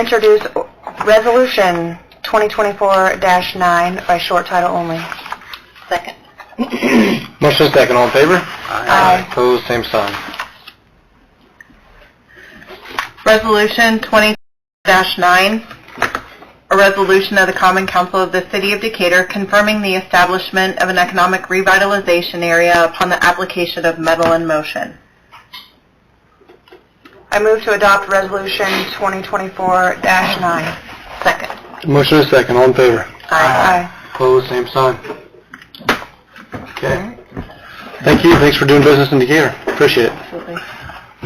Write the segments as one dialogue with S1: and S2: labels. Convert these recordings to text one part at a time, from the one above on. S1: introduce Resolution 2024-9 by short title only.
S2: Second.
S3: Motion second, all in favor?
S1: Aye.
S3: Opposed, same sign.
S2: Resolution 20-9, a resolution of the Common Council of the City of Decatur confirming the establishment of an economic revitalization area upon the application of metal in motion.
S1: I move to adopt Resolution 2024-9.
S2: Second.
S3: Motion is second, all in favor?
S1: Aye.
S3: Opposed, same sign. Okay. Thank you, thanks for doing business in Decatur, appreciate it.
S2: Absolutely.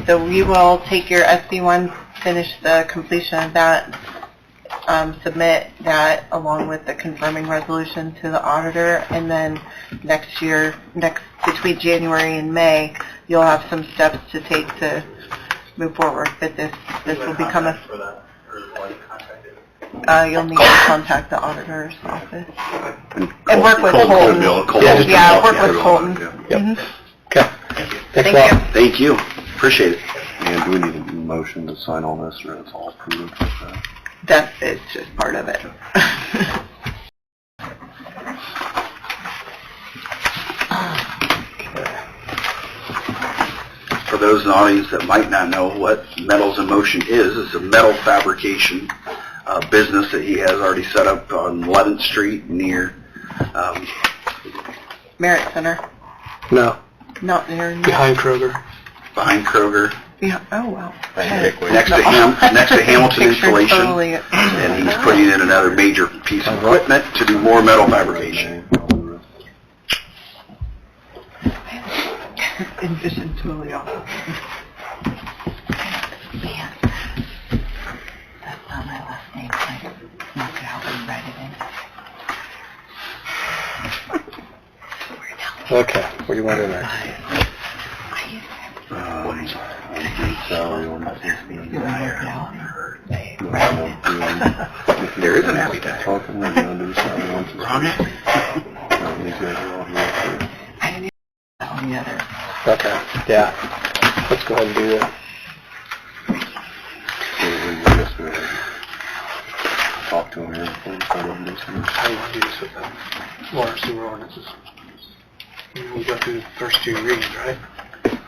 S2: So we will take your SB1, finish the completion of that, um, submit that along with the confirming resolution to the auditor, and then next year, next, between January and May, you'll have some steps to take to move forward, but this, this will become a,
S3: for that, or like contacted?
S2: uh, you'll need to contact the auditor's office. And work with Colton.
S3: Yeah, just-
S2: Yeah, work with Colton. Mhm.
S3: Okay. Thanks a
S2: Thank
S3: lot.
S4: Thank you, appreciate it. And do we need a motion to sign all this, or it's all approved?
S2: That is just part of it.
S4: For those in the audience that might not know what Metals in Motion is, it's a metal fabrication uh, business that he has already set up on 11th Street near, um,
S2: Merit Center,
S3: No,
S2: not near.
S3: behind Kroger.
S4: behind Kroger,
S2: Yeah, oh, wow.
S4: next to Ham, next to Hamilton
S2: Picture's
S4: Insulation.
S2: totally-
S4: And he's putting in another major piece of equipment to do more metal fabrication.
S2: Envision totally off. Man, that's not my last name, I knock it out and write it in.
S3: Okay, what do you want in there?
S4: Um, There is an happy day. Wrong it?
S2: On the other.
S3: Okay, yeah, let's go ahead and do that.
S4: Talk to him here before we start up this one.
S3: How do you want to do this with the water sewer ordinances? We go through the first two readings, right?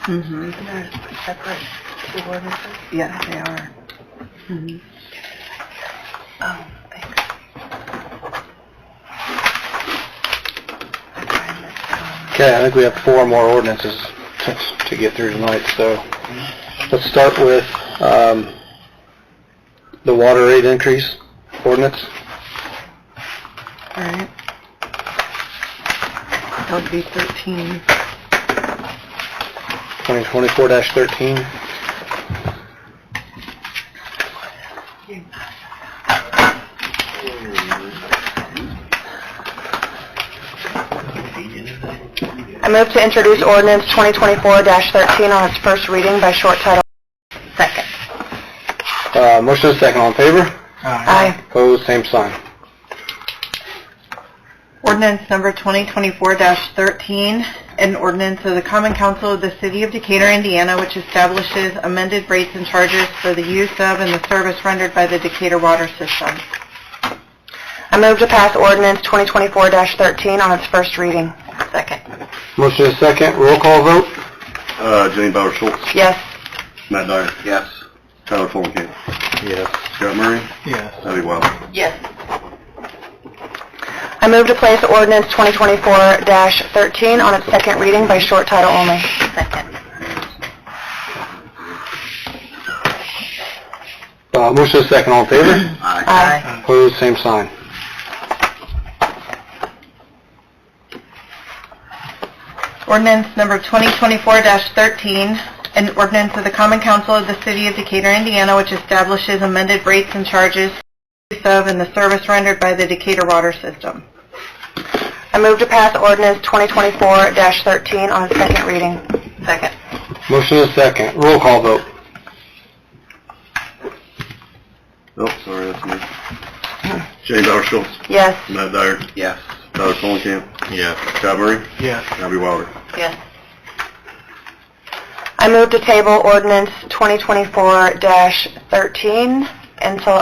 S2: Mm-hmm. Separate, Yes, they are. Mhm. Oh, thanks. I tried this, um,
S3: Okay, I think we have four more ordinances to- to get through tonight, so let's start with um, the water rate increase ordinance.
S2: All right. That would be 13.
S3: 2024-13.
S1: I move to introduce ordinance 2024-13 on its first reading by short title.
S2: Second.
S3: Uh, Motion is second, all in favor?
S1: Aye.
S3: Opposed, same sign.
S2: Ordinance number 2024-13, an ordinance of the Common Council of the City of Decatur, Indiana, which establishes amended rates and charges for the use of and the service rendered by the Decatur water system.
S1: I move to pass ordinance 2024-13 on its first reading.
S2: Second.
S3: Motion is second, roll call vote?
S4: Uh, Jane Bauer Schultz,
S1: Yes.
S4: Matt Dyer. Yes. Tyler Fulenkamp.
S3: Yes.
S4: Scott Murray.
S3: Yes.
S4: Abby Wilder.
S2: Yes.
S1: I move to place ordinance 2024-13 on its second reading by short title only.
S2: Second.
S3: Uh, Motion is second, all in favor?
S4: Aye.
S1: Aye.
S3: Opposed, same sign.
S2: Ordinance number 2024-13, an ordinance of the Common Council of the City of Decatur, Indiana, which establishes amended rates and charges for use of and the service rendered by the Decatur water system.
S1: I move to pass ordinance 2024-13 on its second reading.
S2: Second.
S3: Motion is second, roll call vote?
S4: Oh, sorry, that's me. Jane Bauer Schultz,
S1: Yes.
S4: Matt Dyer. Yes. Tyler Fulenkamp. Yes. Scott Murray.
S3: Yes.
S4: Abby Wilder.
S2: Yes.
S1: I move to table ordinance 2024-13 until